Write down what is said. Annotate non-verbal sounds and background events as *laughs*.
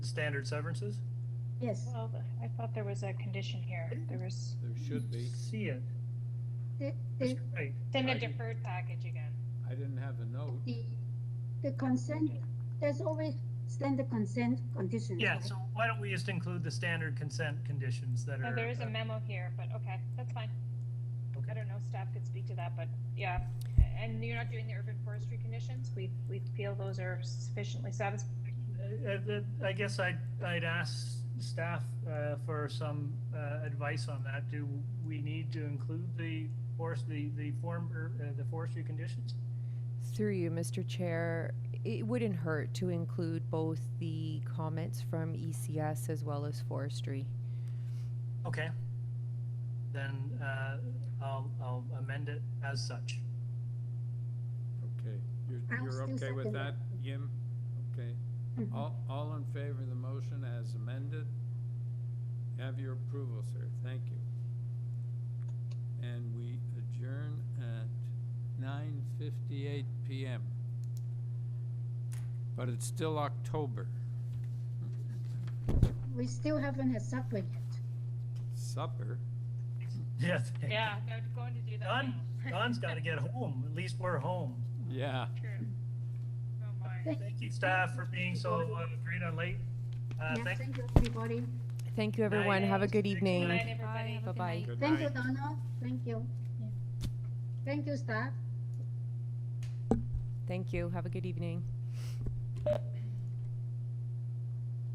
Standard severances? Yes, Well, th- I thought there was a condition here. There was, There should be. See it. the, That's the, right. then I- a deferred package again. I didn't have the note. the, the consent, there's always standard consent conditions. Yeah, right? so why don't we just include the standard consent conditions that Oh, are. there is a uh, memo here, but okay, that's fine. I Okay. don't know, staff could speak to that, but yeah. And you're not doing the urban forestry conditions? We, we feel those are sufficiently satisfied. Uh, uh, I guess I'd, I'd ask staff uh, for some uh, advice on that. Do we need to include the forest, the, the form, or uh, the forestry conditions? Through you, Mr. Chair, it wouldn't hurt to include both the comments from ECS as well as forestry. Okay. Then uh, I'll, I'll amend it as such. *laughs* Okay, you're, I'll you're still okay with second that, it. Yim? Okay. Mhm. All, all in favor of the motion as amended? Have your approval, sir. Thank you. And we adjourn at nine fifty-eight PM. But it's still October. We still haven't had supper yet. Supper? Yes. Yeah, they're going to do that *laughs* Don, now. Don's got to get home. At least we're home. Yeah. True. Oh my. Thank you, staff, for being so uh, great on late. Uh, Yeah, thank Thank you, everybody. Thank you, everyone. Have a Nice. good Thanks, evening. Good night, everybody. Bye. Bye-bye. Good Thank you, night. Donna. Thank you. Thank you, staff. Thank you. Have a good evening.